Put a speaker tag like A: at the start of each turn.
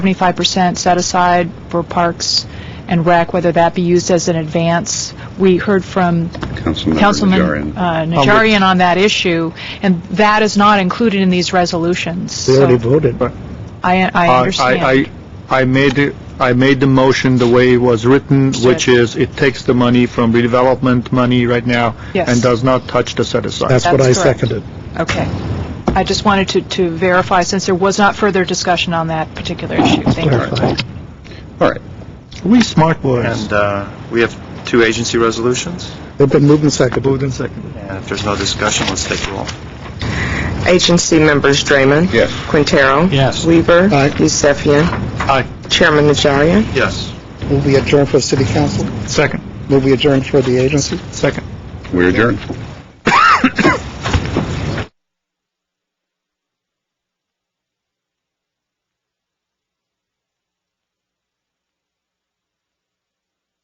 A: 75% set aside for parks and rec, whether that be used as an advance. We heard from Councilman
B: Councilman Najarian.
A: uh,
C: Oh,
A: Najarian on that issue, and that is not included in these resolutions.
C: We already
A: So
C: voted.
A: I I
D: I-
A: understand.
D: I, I, I made, it- I made the motion the way it was written, which is it takes the money from redevelopment money right now
A: Yes.
D: and does not touch the set aside.
C: That's what I
A: That's correct.
C: seconded.
A: Okay. I just wanted to to verify, since there was not further discussion on that particular issue. Thank you.
C: Clarify.
B: All right.
D: We smart boys.
E: And uh, we have two agency resolutions,
C: They've been moved and seconded.
E: and if there's no discussion, let's take roll.
F: Agency members Draymond.
B: Yes.
F: Quintero.
D: Yes.
F: Weaver.
C: Aye.
F: Yusefian.
D: Aye.
F: Chairman Najarian.
E: Yes.
C: Will we adjourn for the city council?
D: Second,
C: Will we adjourn for the agency?
D: second.
B: We adjourn.